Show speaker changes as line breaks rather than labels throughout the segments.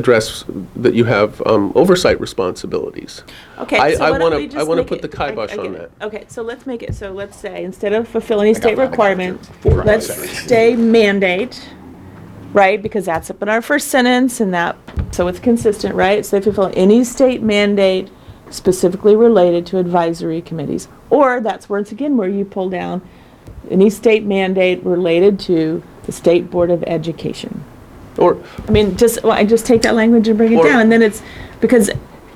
address that you have um, oversight responsibilities.
Okay,
I-
so
I
why don't
wanna-
we just
I wanna
make
put
it-
the
I- I
kibosh
get
on
it. Okay, so let's make it, so let's say, instead of fulfilling state
mine, I got mine.
requirement,
Four.
let's stay mandate, right? Because that's up in our first sentence and that, so it's consistent, right? So they fulfill any state mandate specifically related to advisory committees. Or that's once again where you pull down any state mandate related to the State Board of Education.
Or,
I mean, just, well, I just take that language and bring it
Or-
down, and then it's, because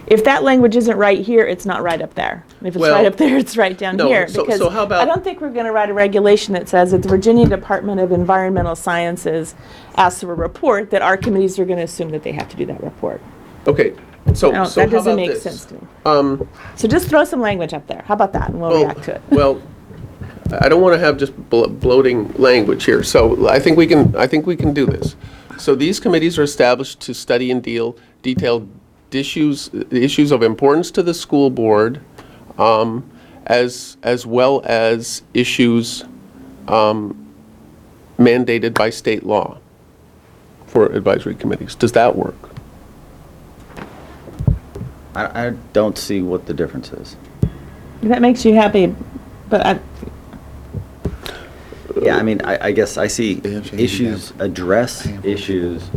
if that language isn't right here, it's not right up there. And If it's right
Well,
up there, it's right down
no,
here.
so-
because
so how about-
I don't think we're gonna write a regulation that says that the Virginia Department of Environmental Sciences asks for a report, that our committees are gonna assume that they have to do that report.
okay, so, so how
No,
about this?
that doesn't make sense to me.
Um,
So just throw some language up there, how about that, and we'll
well-
react to it.
Well, I don't want to have just blo- bloating language here, so I think we can, I think we can do this. So these committees are established to study and deal detailed issues, issues of importance to the school board, um, as, as well as issues um, mandated by state law for advisory committees. Does that work?
I, I don't see what the difference is.
If that makes you happy, but I,
Yeah, I mean, I, I guess I see
They have to
issues, address issues.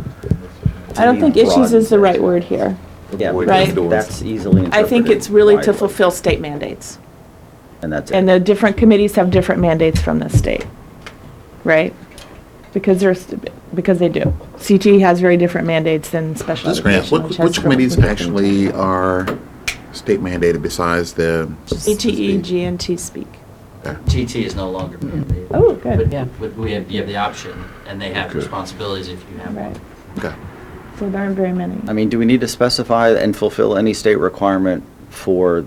I don't think issues is the right word here.
Yeah,
Avoid
Right.
indoors.
that's easily
I think
interpreted
it's really to
widely,
fulfill state mandates.
And that's
And
it.
the different committees have different mandates from the state, right? Because there's, because they do. CTE has very different mandates than special
This grant,
education.
what- which committees actually are state mandated besides the?
CTE, G and T speak.
TT is no longer mandated.
Oh, good.
But-
Yeah.
But we have, you have the option, and they have
Okay.
responsibilities if you have
Right.
one.
Okay.
So there aren't very many.
I mean, do we need to specify and fulfill any state requirement for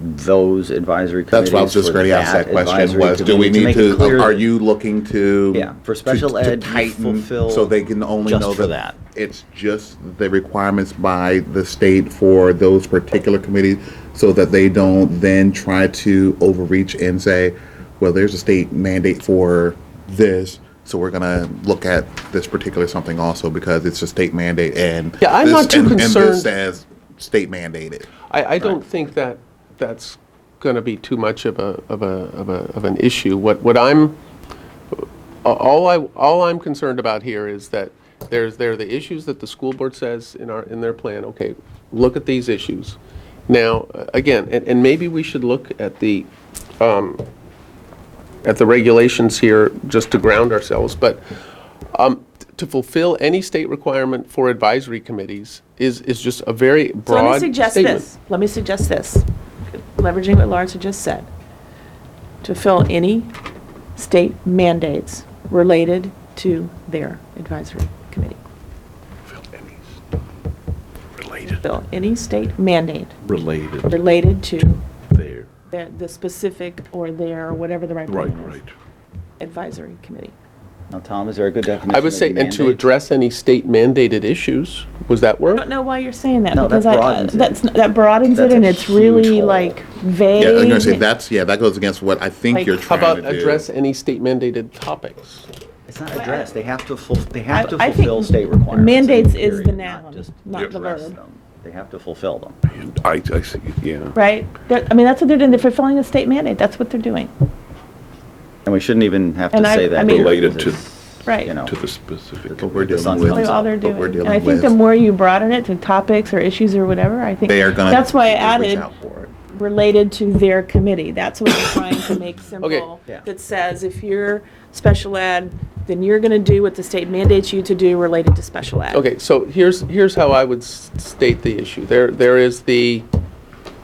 those advisory committees?
That's why I was just
for
going to ask that question,
advisory
was do we
committee,
need
make it clear
to, are
that-
you looking to?
Yeah, for
to-
special
to
ed, you
tighten
fulfill
So they can only
just
know
for
that
that.
it's just the requirements by the state for those particular committees so that they don't then try to overreach and say, well, there's a state mandate for this, so we're going to look at this particular something also because it's a state mandate and.
Yeah, I'm
this-
not too
and- And
concerned-
this says state mandated.
I, I don't think that that's going to be too much of a, of a, of a, of an issue. What, what I'm, a- all I, all I'm concerned about here is that there's, there are the issues that the school board says in our, in their plan, okay, look at these issues. Now, uh, again, and, and maybe we should look at the, um, at the regulations here just to ground ourselves, but um, t- to fulfill any state requirement for advisory committees is, is just a very broad
So let
statement.
me suggest this. Let me suggest this, leveraging what Lawrence had just said. To fill any state mandates related to their advisory committee. Related. Fill any state mandate
related
related to
there.
the, the specific or their, or whatever the right
Right,
wording is,
right.
advisory committee.
Now, Tom, is there a good definition?
I would
of
say, and to
mandate?
address any state mandated issues, was that
I
work?
don't know why you're saying that,
No, that
because I,
broadens it.
that's, that broadens it,
That's a
and it's
huge
really
hole.
like
Yeah, I'm
vague.
going to say that's, yeah, that goes against what I think
Like-
you're
How
trying to
about
do.
address any state mandated topics?
It's not addressed, they have to ful, they
I-
have to
I think
fulfill state requirements.
mandates
in
is the
period,
noun,
just
not the
address
verb.
them. They have to fulfill them.
I, I see, yeah.
Right? That- I mean, that's what they're doing, they're fulfilling a state mandate, that's what they're doing.
And we shouldn't even have to
And I- I
say that.
mean-
here,
Related
because
to-
it's,
Right.
You know,
To the specific.
What we're
The
dealing
sun's
with.
coming
That's all they're
what
doing.
we're
And
dealing
I think the
with.
more you broaden it to topics or issues or whatever, I think.
They are going to.
That's why I added related to their committee. That's what we're trying to make simple.
Yeah.
That says if you're special ed, then you're going to do what the state mandates you to do related to special ed.
Okay, so here's, here's how I would s- state the issue. There, there is the,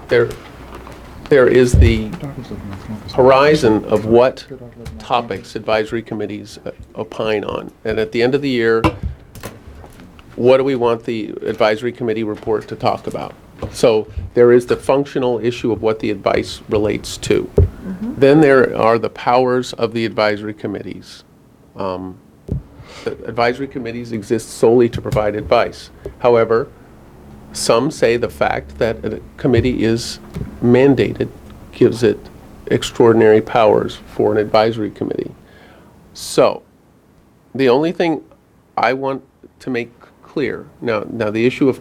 there, there is the horizon of what topics advisory committees uh, opine on. And at the end of the year, what do we want the advisory committee report to talk about? So there is the functional issue of what the advice relates to. Then there are the powers of the advisory committees. Um, the Advisory committees exist solely to provide advice. However, some say the fact that a committee is mandated gives it extraordinary powers for an advisory committee. So, the only thing I want to make c- clear. Now, now the issue of